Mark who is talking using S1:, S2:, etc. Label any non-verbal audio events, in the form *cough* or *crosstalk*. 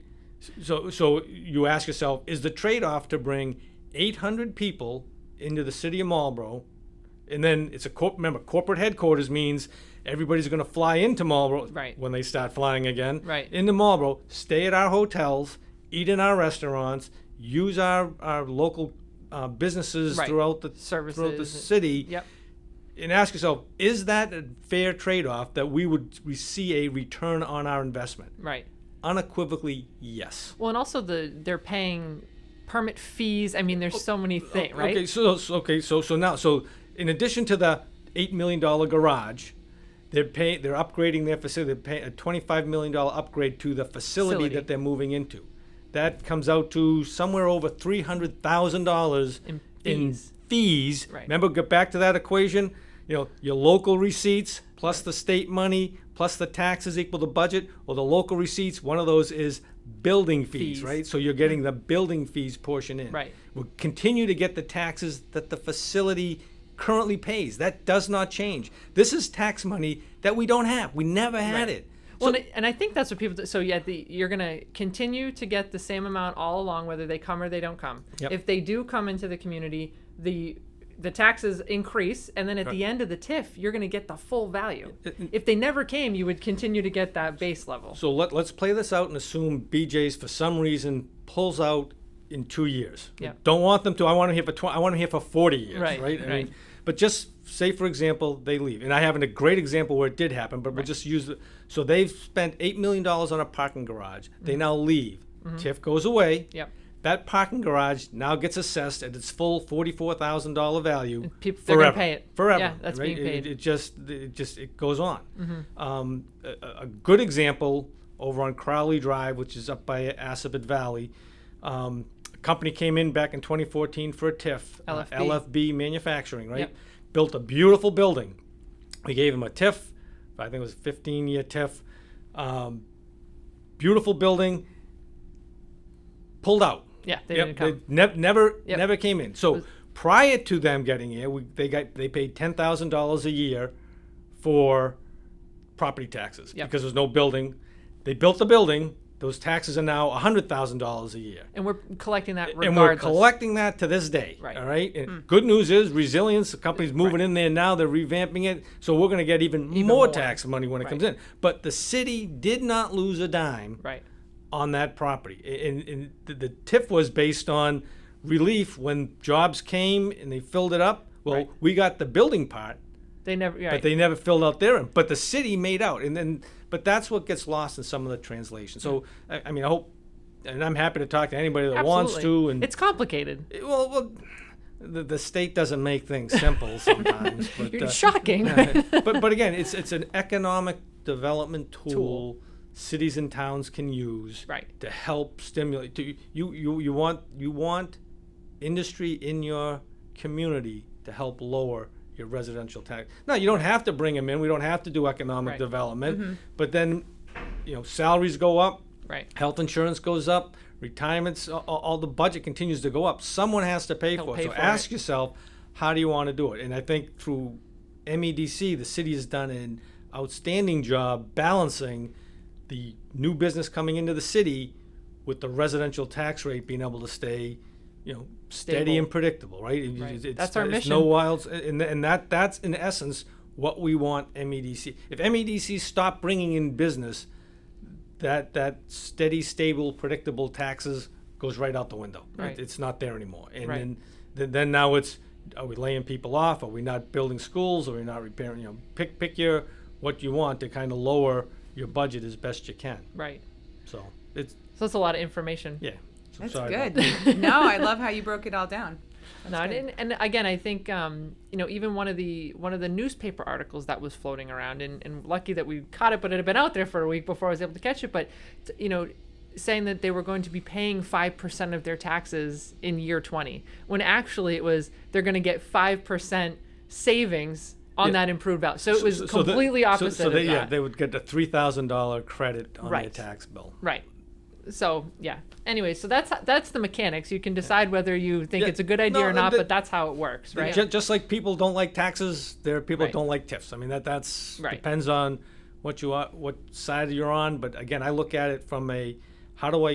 S1: So, so you ask yourself, is the trade-off to bring 800 people into the city of Marlboro, and then it's a corp. Remember, corporate headquarters means everybody's going to fly into Marlboro
S2: Right.
S1: when they start flying again.
S2: Right.
S1: Into Marlboro, stay at our hotels, eat in our restaurants, use our our local uh, businesses
S2: Right.
S1: throughout the throughout the
S2: Services.
S1: city
S2: Yep.
S1: and ask yourself, is that a fair trade-off that we would we see a return on our investment?
S2: Right.
S1: Unequivocally, yes.
S2: Well, and also the they're paying permit fees. I mean, there's so many things, right?
S1: Oh, Okay, so, so okay, so so now so in addition to the eight million dollar garage, they're paying they're upgrading their facility. They're paying a twenty-five million dollar upgrade to the facility,
S2: Facility.
S1: that they're moving into. That comes out to somewhere over three hundred thousand dollars
S2: In
S1: in
S2: fees.
S1: fees.
S2: Right.
S1: Remember, get back to that equation. You know, your local receipts plus the state money plus the taxes equal the budget, or the local receipts. One of those is building fees.
S2: Fees.
S1: right? So you're getting the building fees portion in.
S2: Right.
S1: We'll continue to get the taxes that the facility currently pays. That does not change. This is tax money that we don't have. We never had
S2: Right.
S1: it.
S2: Well, and I- and I think that's what people. Do. So yeah, the, you're gonna continue to get the same amount all along, whether they come or they don't come.
S1: Yep.
S2: If they do come into the community, the the taxes increase, and then at the end of the TIF, you're gonna get the full value. If they never came, you would continue to get that base level.
S1: So let, let's play this out and assume BJ's for some reason pulls out in two years.
S2: Yeah.
S1: Don't want them to. I want them here for 20, I want them here for 40 years.
S2: Right,
S1: Right. I
S2: right.
S1: mean, but just say, for example, they leave. And I have a great example where it did happen, but we'll just use it. So they've spent $8 million on a parking garage.
S2: Mm-hmm.
S1: They now leave. TIF goes away.
S2: Yep.
S1: That parking garage now gets assessed at its full forty-four thousand dollar value.
S2: peop- they're gonna
S1: forever.
S2: pay it.
S1: Forever.
S2: Yeah, that's
S1: right?
S2: being
S1: It-
S2: paid. Mm-hmm.
S1: It, it just, it just, it goes on. Um, a- a, a good example over on Crowley Drive, which is up by Assabet Valley. Um, a company came in back in 2014 for a TIF. uh,
S2: LFB.
S1: LFB Manufacturing, right?
S2: Yep.
S1: Built a beautiful building. We gave them a TIF. I think it was a 15-year TIF. Um, beautiful building. Pulled out.
S2: Yeah, they
S1: Yep,
S2: didn't come.
S1: they nev- never,
S2: Yep.
S1: never came in. So prior to them getting here, we, they got they paid ten thousand dollars a year for property taxes
S2: Yep.
S1: because there's no building. They built the building. Those taxes are now hundred thousand dollars a year,
S2: and we're collecting that regardless.
S1: and we're collecting that to this day.
S2: Right. Hmm.
S1: All right. And Good news is resilience. The company's moving in there now. They're revamping it, so we're going to get even, more,
S2: more.
S1: tax money when it comes
S2: Right.
S1: in. But the city did not lose a dime
S2: right.
S1: on that property. A- And, and the, the TIF was based on relief when jobs came and they filled it up. Well,
S2: Right.
S1: we got the building part,
S2: They never. Right.
S1: but they never filled out their. But the city made out, and then but that's what gets lost in some of the translation. So I, I mean, I hope, and I'm happy to talk to anybody that
S2: Absolutely.
S1: wants to. And
S2: it's complicated.
S1: well, well, the, the state doesn't make things
S2: *laughs*
S1: simple sometimes. but,
S2: You're
S1: uh, *laughs*
S2: shocking.
S1: but but again, it's it's an economic development tool,
S2: Tool.
S1: cities and towns can use
S2: Right.
S1: to help stimulate. To, you you you want you want industry in your community to help lower your residential tax. Now you don't have to bring them in. We don't have to do economic
S2: Right. Mm-hmm.
S1: development. But then, you know, salaries go up,
S2: right.
S1: health insurance goes up, retirements, all, all the budget continues to go up. Someone has to pay
S2: Help
S1: for it.
S2: pay
S1: so
S2: for
S1: ask
S2: it.
S1: yourself, how do you want to do it? And I think through MEDC, the city has done an outstanding job balancing the new business coming into the city with the residential tax rate being able to stay, you know, steady
S2: Stable.
S1: and predictable, right? It-
S2: Right.
S1: It's,
S2: That's our
S1: it's no
S2: mission.
S1: wilds, and, and that that's in essence what we want MEDC. If MEDC stopped bringing in business, that that steady, stable, predictable taxes goes right out the window. It-
S2: Right.
S1: It's not there anymore. And
S2: Right.
S1: then, then then now it's are we laying people off? Are we not building schools? Are we not repairing? You know, pick pick your what you want to kind of lower your budget as best you can.
S2: Right.
S1: So it's
S2: So that's a lot of information.
S1: yeah. So
S3: That's
S1: sorry about
S3: good.
S1: that.
S3: no,
S1: *laughs*
S3: I love how you broke it all down.
S2: No, I didn't. And again, I think um, you know, even one of the one of the newspaper articles that was floating around, and, and lucky that we caught it, but it had been out there for a week before I was able to catch it. But t- you know, saying that they were going to be paying five percent of their taxes in year twenty, when actually it was they're going to get five percent savings on
S1: Yeah.
S2: that improved value. So it was
S1: So- so the-
S2: completely
S1: so-
S2: opposite
S1: So, they,
S2: of
S1: yeah,
S2: that.
S1: they would get a three thousand dollar credit on their
S2: Right.
S1: tax bill.
S2: Right. So yeah. Anyway, so that's that's the mechanics. You can decide whether you think
S1: Yeah.
S2: it's a good idea
S1: No,
S2: or not,
S1: the-
S2: but that's how it works, right?
S1: Ju- Just, like people don't like taxes, there are people
S2: Right.
S1: that don't like tips. I mean, that that's
S2: Right.
S1: depends on what you are, what side you're on. But again, I look at it from a how do I